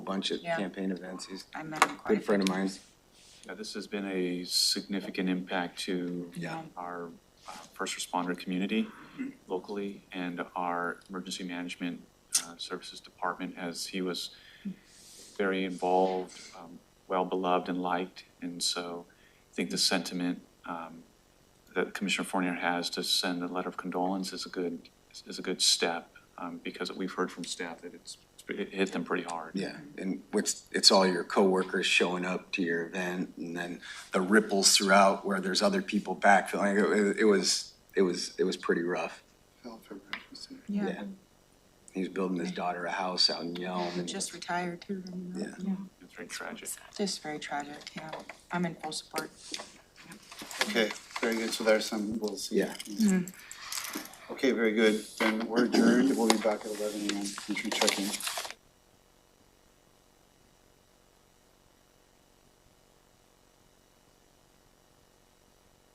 bunch of Yeah. campaign events. He's I met him a good quite. friend of mine. Yeah, this has been a significant impact to Yeah. our uh, first responder community locally and our emergency management uh, services department as he was very involved, um, well-beloved and liked. And so I think the sentiment um, that Commissioner Fournier has to send a letter of condolence is a good, is a good step um, because we've heard from staff that it's, it hit them pretty hard. Yeah, and it's, it's all your coworkers showing up to your event and then the ripples throughout where there's other people backfilling. It- It, it was, it was, it was pretty rough. Felt for breakfast. Yeah, He was building his daughter a house out in Yelm. he and- just retired too. didn't he? um, Yeah. It's very tragic. Just very tragic, yeah. I'm in full support. Okay, very good, so there's some, we'll see. Yeah. Okay, very good, then we're adjourned, we'll be back at eleven AM, entry check-in.